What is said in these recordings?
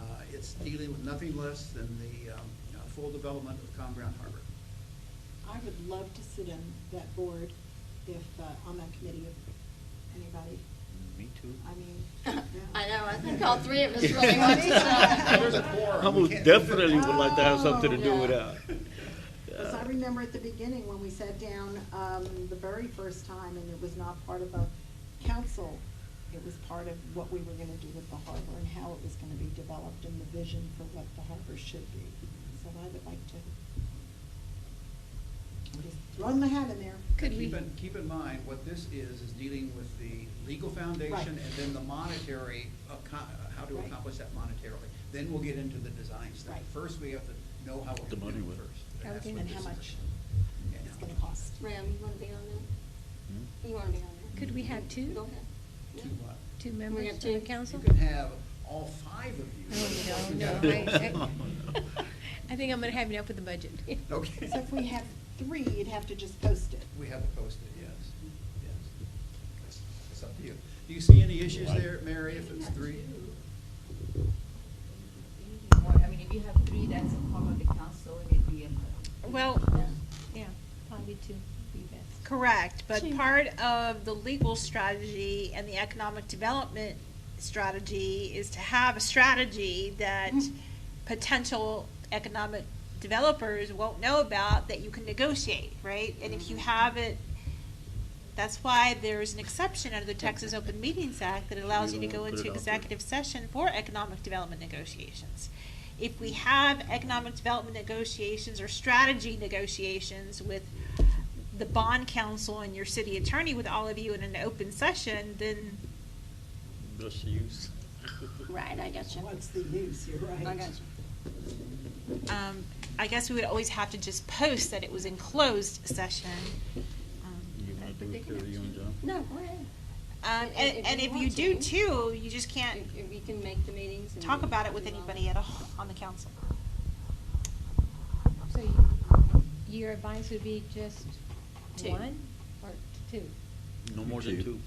Uh, dealing with nothing less than the um, uh, full development of Con Brown Harbor. I would love to sit on that board if, uh, on that committee, if anybody, Me too. I mean. I yeah. know, I think all three of us really want There's a to. quorum. I We most can't- definitely would like to have something to do Oh, with yeah. that. Because I Yeah. remember at the beginning when we sat down, um, the very first time, and it was not part of a council. It was part of what we were gonna do with the harbor and how it was gonna be developed and the vision for what the harbor should be. So I would like to, I'm just throwing my hat in there. Could we, Keep in, keep in mind, what this is, is dealing with the legal Right. foundation and then the monetary, acco- how to Right. accomplish that monetarily. Then we'll get into the design stuff. Right. First, we have to know how we're The gonna do money it will. first. How that's we what And how this is. much Yeah. it's gonna cost. Ram, you want to be on Hmm? that? You want to be on that? Could we have two? Go ahead. Yeah. Two what? Two We members have of two. the You council? can have all five of you. Oh, You no, gotta no, do I, it. I, I think I'm gonna have enough with the budget. Okay. So if we have three, you'd have to just post it. We have to post it, yes, yes. It's- It's up to you. Do you see any issues there, Mary, if it's three? Or, I mean, if you have three, that's a form of the council, and it'd be a. Well- Yeah. Yeah, Probably two would be best. correct, but Sure. part of the legal strategy and the economic development strategy is to have a strategy that Mm. potential economic developers won't know about that you can negotiate, right? And if you Mm. have it, that's why there's an exception under the Texas Open Meetings Act that allows you We to don't go wanna put it into out there. executive session for economic development negotiations. If we have economic development negotiations or strategy negotiations with the bond council and your city attorney with all of you in an open session, then Just use. Right, I got you. What's the use, you're right. I got you. um, I guess we would always have to just post that it was in closed session. You Um, wanna do it, Carrie, you and John? No, go ahead. um, and, and if you do too, you just can't If if you can make the meetings and. talk about it with do all anybody at that. all on the council. So you- your advice would be just Two. one or two? No more than two.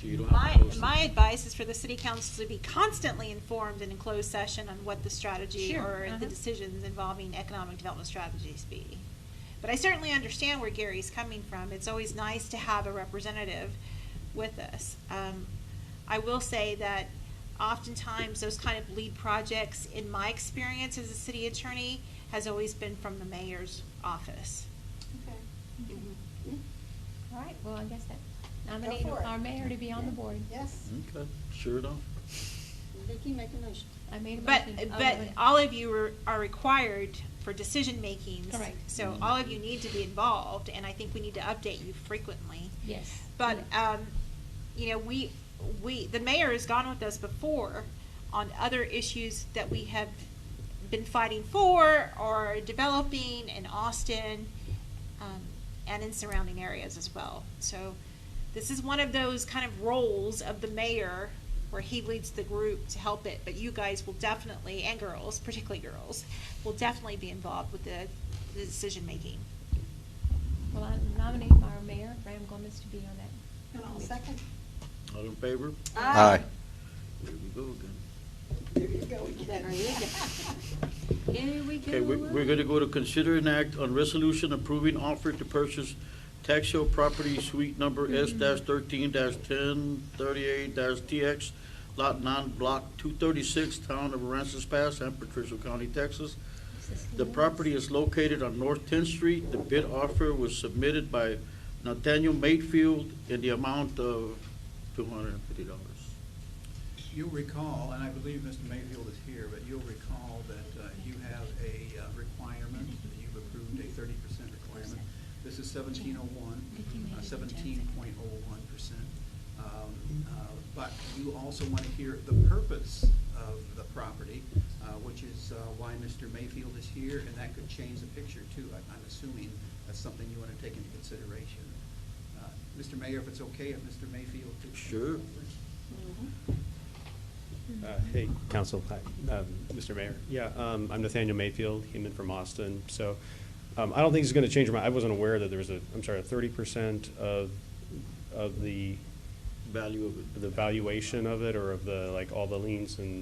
So you don't have My, to post it. my advice is for the city council to be constantly informed in a closed session on what the strategy Sure, or uh-huh. the decisions involving economic development strategies be. But I certainly understand where Gary's coming from. It's always nice to have a representative with us. Um, I will say that oftentimes those kind of lead projects, in my experience as a city attorney, has always been from the mayor's office. Okay. Mm-hmm. Mhm. Yeah. All right, well, I guess that nominate for it. our mayor to be on the board. Yes. Okay, sure enough. Vicky, make a motion. I made a But, motion. Oh, but wait. all of you are, are required for decision makings. Correct. So all of you need to be involved, and I think we need to update you frequently. Yes. But, yeah. um, you know, we, we, the mayor has gone with us before on other issues that we have been fighting for or developing in Austin, um, and in surrounding areas as well. So this is one of those kind of roles of the mayor where he leads the group to help it, but you guys will definitely, and girls, particularly girls, will definitely be involved with the, the decision-making. Well, I nominate our mayor, Ram Gomez, to be on that. And I'll second. All in favor? Aye. There we go again. There you go again. There you Here we go. Okay, we, we're gonna go to consider an act on resolution approving offer to purchase tax sale property suite number S Mm-hmm. thirteen ten thirty-eight TX, lot nine, block two thirty-six, town of Aransas Pass, San Patricio County, Texas. The property is located on North 10th Street. The bid offer was submitted by Nathaniel Mayfield in the amount of $250. You'll recall, and I believe Mr. Mayfield is here, but you'll recall that uh, you have a uh, requirement, that you've approved a thirty percent requirement. This is seventeen oh one, seventeen point oh one percent. Um, uh, But you also want to hear the purpose of the property, uh, which is uh, why Mr. Mayfield is here, and that could change the picture too. I- I'm assuming that's something you want to take into consideration. Uh, Mr. Mayor, if it's okay, if Mr. Mayfield could. Sure. Uh, Hey, council, hi, um, Mr. Mayor. Yeah, um, I'm Nathaniel Mayfield, Heman from Austin. So um, I don't think this is going to change my, I wasn't aware that there was a, I'm sorry, a 30% of, of the, Value of it. the valuation of it or of the, like, all the liens and